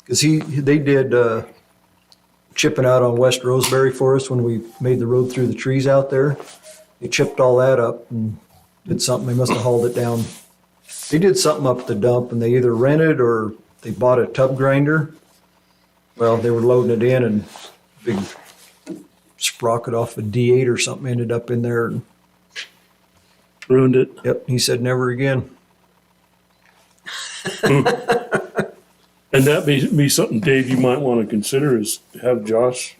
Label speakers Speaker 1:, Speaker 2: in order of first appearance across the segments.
Speaker 1: Because he, they did uh, chipping out on West Roseberry for us when we made the road through the trees out there. They chipped all that up and did something. They must have hauled it down. They did something up at the dump and they either rented or they bought a tub grinder. Well, they were loading it in and big sprocket off a D8 or something ended up in there. And,
Speaker 2: Ruined it.
Speaker 1: yep, he said never again.
Speaker 2: And that may be something, Dave, you might want to consider is have Josh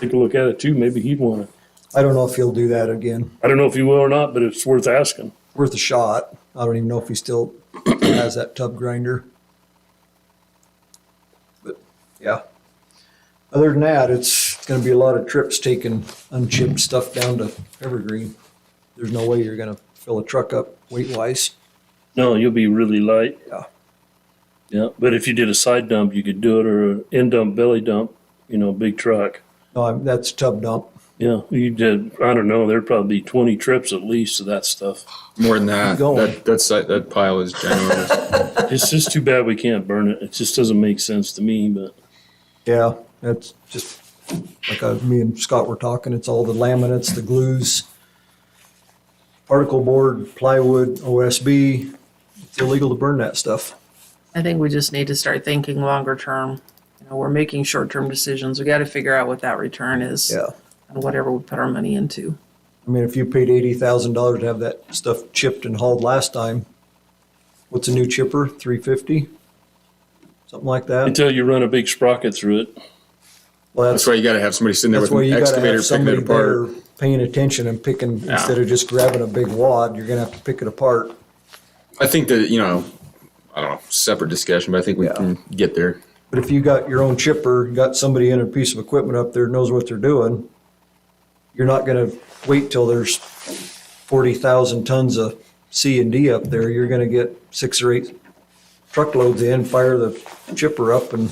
Speaker 2: take a look at it too. Maybe he'd want to.
Speaker 1: I don't know if he'll do that again.
Speaker 2: I don't know if he will or not, but it's worth asking.
Speaker 1: Worth a shot. I don't even know if he still has that tub grinder. But yeah. Other than that, it's going to be a lot of trips taking unchipped stuff down to Evergreen. There's no way you're going to fill a truck up weight wise.
Speaker 2: No, you'll be really light.
Speaker 1: Yeah.
Speaker 2: Yeah, but if you did a side dump, you could do it or an end dump, belly dump, you know, big truck.
Speaker 1: No, I'm, that's tub dump.
Speaker 2: Yeah, you did, I don't know, there'd probably be 20 trips at least of that stuff.
Speaker 3: More than that,
Speaker 1: Keep going.
Speaker 3: that, that's, that pile is generous.
Speaker 2: It's just too bad we can't burn it. It just doesn't make sense to me, but
Speaker 1: Yeah, that's just like uh me and Scott were talking. It's all the laminates, the glues, particle board, plywood, OSB. It's illegal to burn that stuff.
Speaker 4: I think we just need to start thinking longer term. You know, we're making short-term decisions. We got to figure out what that return is
Speaker 1: Yeah.
Speaker 4: on whatever we put our money into.
Speaker 1: I mean, if you paid eighty thousand dollars to have that stuff chipped and hauled last time, what's a new chipper? Three fifty? Something like that?
Speaker 2: until you run a big sprocket through it.
Speaker 1: Well,
Speaker 3: That's why you gotta have somebody sitting there
Speaker 1: That's
Speaker 3: with
Speaker 1: why
Speaker 3: an
Speaker 1: you gotta
Speaker 3: excavator
Speaker 1: have
Speaker 3: picking it
Speaker 1: somebody there
Speaker 3: apart.
Speaker 1: paying attention and picking,
Speaker 3: Yeah.
Speaker 1: instead of just grabbing a big wad, you're gonna have to pick it apart.
Speaker 3: I think that, you know, I don't know, separate discussion, but I think we
Speaker 1: Yeah.
Speaker 3: can get there.
Speaker 1: But if you got your own chipper, got somebody in a piece of equipment up there knows what they're doing, you're not gonna wait till there's forty thousand tons of C and D up there. You're gonna get six or eight truckloads in, fire the chipper up and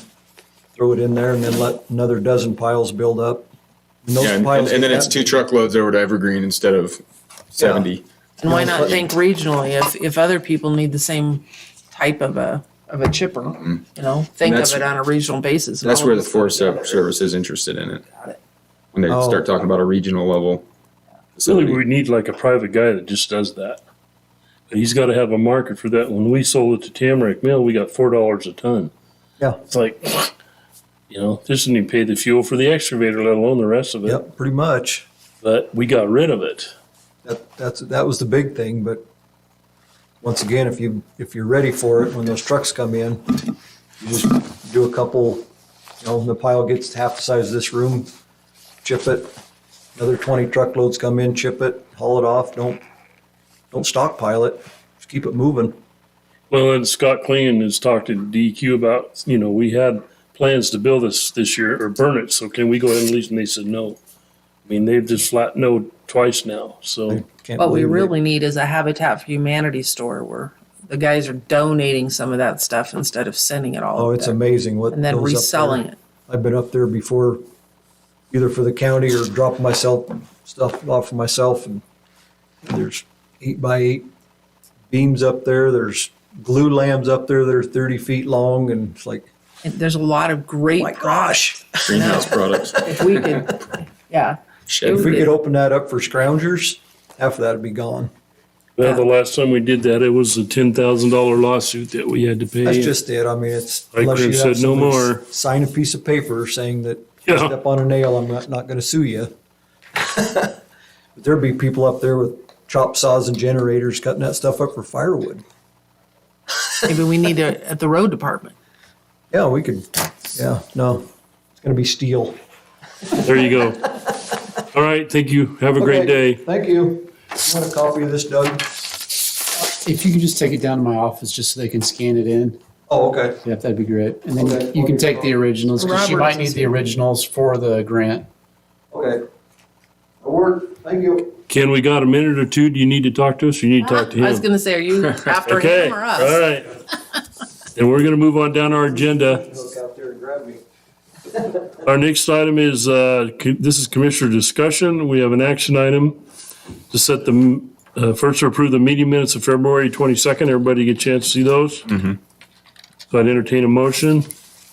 Speaker 1: throw it in there and then let another dozen piles build up. And those
Speaker 3: Yeah, and, and
Speaker 1: piles
Speaker 3: and then
Speaker 1: get
Speaker 3: it's
Speaker 1: that
Speaker 3: two truckloads over to Evergreen instead of seventy.
Speaker 4: And why not think regionally if, if other people need the same type of a, of a chipper? You know, think of
Speaker 3: that's-
Speaker 4: it on a regional basis.
Speaker 3: That's where the
Speaker 4: four
Speaker 3: Forest Ser- Service is interested in it.
Speaker 4: it.
Speaker 3: When they
Speaker 1: Oh.
Speaker 3: start talking about a regional level.
Speaker 2: Really,
Speaker 3: facility.
Speaker 2: we need like a private guy that just does that. But he's got to have a market for that. When we sold it to Tamarack Mill, we got four dollars a ton.
Speaker 1: Yeah.
Speaker 2: it's like, you know, this didn't even pay the fuel for the excavator, let alone the rest of it.
Speaker 1: Yep, pretty much.
Speaker 2: But we got rid of it.
Speaker 1: That, that's, that was the big thing, but once again, if you, if you're ready for it, when those trucks come in, you just do a couple, you know, the pile gets half the size of this room, chip it, another twenty truckloads come in, chip it, haul it off, don't, don't stockpile it, just keep it moving.
Speaker 2: Well, and Scott Klingon has talked to DQ about, you know, we had plans to build this this year or burn it. So can we go ahead and lease? And they said no. I mean, they've just flat no twice now. So
Speaker 1: Can't
Speaker 4: What we
Speaker 1: believe it.
Speaker 4: really need is a Habitat for Humanity store where the guys are donating some of that stuff instead of sending it all.
Speaker 1: Oh,
Speaker 4: up
Speaker 1: it's
Speaker 4: there.
Speaker 1: amazing what.
Speaker 4: And then
Speaker 1: goes up there.
Speaker 4: reselling it.
Speaker 1: I've been up there before, either for the county or dropping myself, stuff off for myself. And there's eight by eight beams up there. There's glue lambs up there that are 30 feet long. And it's like,
Speaker 4: And There's a lot of great.
Speaker 1: Oh my gosh,
Speaker 3: Greenhouse products.
Speaker 4: If we could, yeah.
Speaker 3: Shed.
Speaker 1: if we could open that up for scroungers, half of that'd be gone.
Speaker 2: well, the last time we did that, it was a ten thousand dollar lawsuit that we had to pay.
Speaker 1: That's just it. I mean, it's.
Speaker 2: Like
Speaker 1: unless you
Speaker 2: Chris
Speaker 1: have
Speaker 2: said, no
Speaker 1: somebody
Speaker 2: more.
Speaker 1: Sign a piece of paper saying that
Speaker 2: Yeah.
Speaker 1: step on a nail, I'm not, not gonna sue you. But there'd be people up there with chop saws and generators cutting that stuff up for firewood.
Speaker 4: Maybe we need to, at the road department.
Speaker 1: Yeah, we could, yeah, no, it's gonna be steel.
Speaker 2: There you go. All right, thank you. Have a great
Speaker 1: Okay,
Speaker 2: day.
Speaker 1: Thank you. You want a copy of this, Doug?
Speaker 5: If you could just take it down to my office just so they can scan it in,
Speaker 1: Oh, okay.
Speaker 5: yeah, that'd be great. And then
Speaker 1: Okay.
Speaker 5: you can take the originals because she
Speaker 4: Robert's
Speaker 5: might
Speaker 4: is
Speaker 5: need the
Speaker 4: here.
Speaker 5: originals for the grant.
Speaker 1: Okay. I work, thank you.
Speaker 2: Ken, we got a minute or two? Do you need to talk to us? or You need to talk to him.
Speaker 4: I was gonna say, are you after
Speaker 2: okay.
Speaker 4: him or
Speaker 2: All
Speaker 4: us?
Speaker 2: right. and we're going to move on down our agenda.
Speaker 1: Look out there and grab me.
Speaker 2: Our next item is uh, co- this is commissioner discussion. We have an action item to set the m- uh, first to approve the meeting
Speaker 4: Mm-hmm.
Speaker 2: minutes of February 22nd. Everybody get a chance to see those. So I'd entertain a motion.